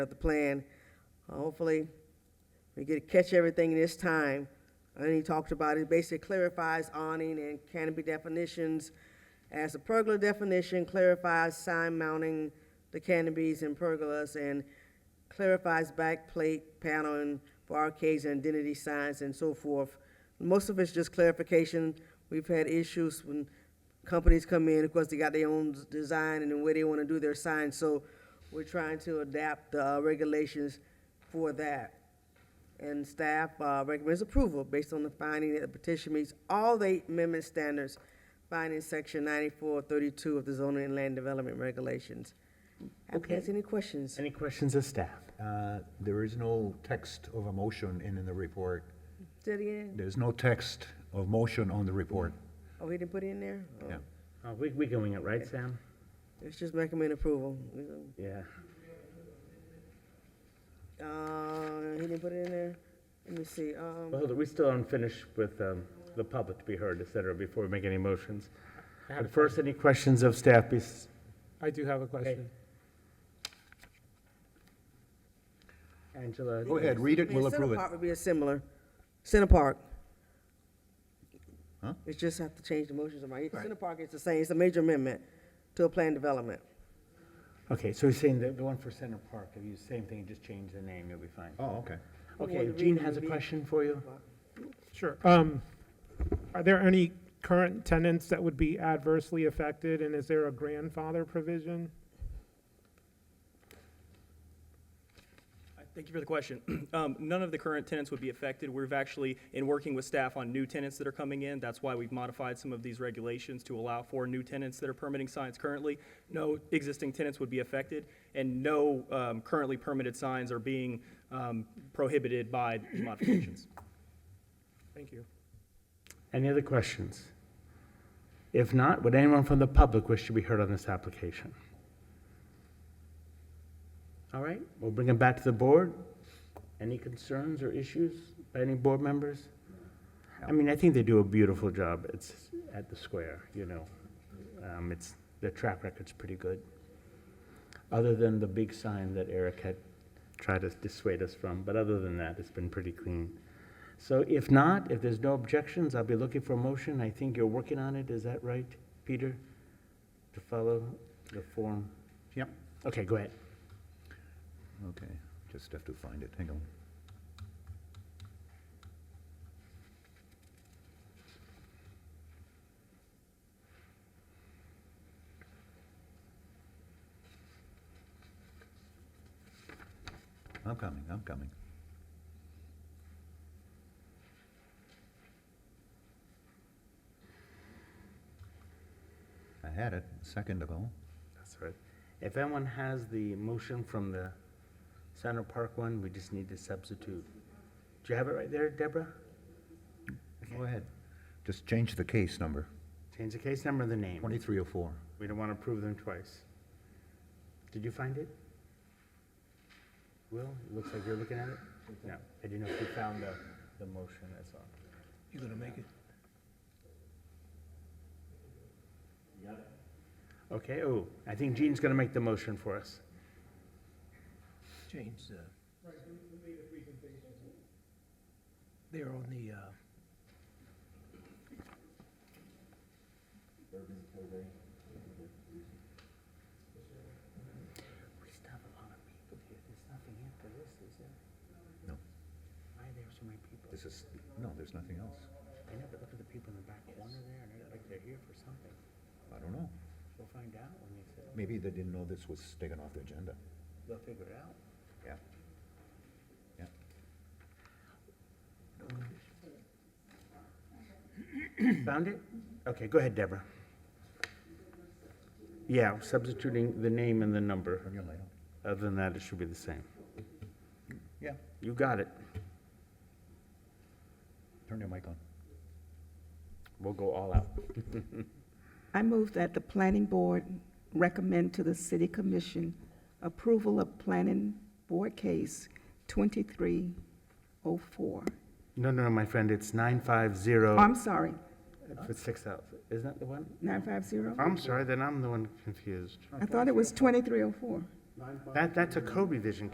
of the plan. Uh, Hopefully, we get to catch everything this time. And he talked about it, basically clarifies awning and canopy definitions. As a pergola definition, clarifies sign mounting the canopies and pergolas, and clarifies backplate paneling for arcades and identity signs and so forth. Most of it's just clarification. We've had issues when companies come in, of course, they got their own s- design and the way they want to do their signs, so we're trying to adapt the uh, regulations for that. And staff uh, recommends approval based on the finding that the petition meets all the eight amendment standards found in section ninety-four thirty-two of the zoning and land development regulations. Applicants, any questions? Any questions of staff? Uh, There is no text of a motion in, in the report. Say it again? There's no text of motion on the report. Oh, he didn't put it in there? Oh, Yeah. Oh, we, we going it right, Sam? It's just recommend approval. Yeah. Uh, he didn't put it in there? Let me see, um, Well, hold it, we still aren't finished with, um, the public to be heard, et cetera, before we make any motions. I have But a first, any questions of staff? bes- I do have a question. Angela? Go ahead, read I it, mean, we'll Center approve it. Park would be a similar, Center Park. Huh? It's just have to change the motions of my, Center Park is the same, it's a major amendment to a plan development. Okay, so you're saying the, the one for Center Park, if you, same thing, just change the name, you'll be fine. Oh, okay. Well, Okay, the Gene reason has a would be- question for you? Sure. Um, Are there any current tenants that would be adversely affected, and is there a grandfather provision? Uh, Thank you for the question. Um, None of the current tenants would be affected. We've actually, in working with staff on new tenants that are coming in, that's why we've modified some of these regulations to allow for new tenants that are permitting signs currently. No existing tenants would be affected, and no um, currently permitted signs are being um, prohibited by these modifications. Thank you. Any other questions? If not, would anyone from the public wish to be heard on this application? All right, we'll bring it back to the board. Any concerns or issues by any board members? I mean, I think they do a beautiful job. It's at the square, you know. Um, it's, their track record's pretty good. Other than the big sign that Eric had tried to dissuade us from, but other than that, it's been pretty clean. So if not, if there's no objections, I'll be looking for a motion. I think you're working on it, is that right, Peter? To follow the form? Yep. Okay, go ahead. Okay, just have to find it, hang on. I'm coming, I'm coming. I had it a second ago. That's right. If anyone has the motion from the Center Park one, we just need to substitute. Do you have it right there, Deborah? Go ahead. Just change the case number, Change the case number and the name. 2304. We don't want to prove them twice. Did you find it? Will, it looks like you're looking at it? No, I didn't know if you found the, the motion, that's all. You gonna make it? Okay, oh, I think Gene's gonna make the motion for us. change the. They're on the, uh, We still have a lot of people here, there's nothing after this, is there? No, Why are there so many people? this is, no, there's nothing else. I never look at the people in the back corner there, and they're like they're here for something. I don't know. We'll find out when they sit, Maybe they didn't know this was taken off the agenda. they'll figure it out. Yeah. Yeah. Found it? Okay, go ahead, Deborah. Yeah, substituting the name and the number, Turn your light on. other than that, it should be the same. Yeah, You got it, turn your mic on. we'll go all out. I move that the planning board recommend to the city commission approval of planning board case 2304. No, no, no, my friend, it's nine five zero. Oh, I'm sorry, For six thousand, isn't that the one? 950? I'm sorry, then I'm the one confused. I thought it was 2304. That, that's a co-revision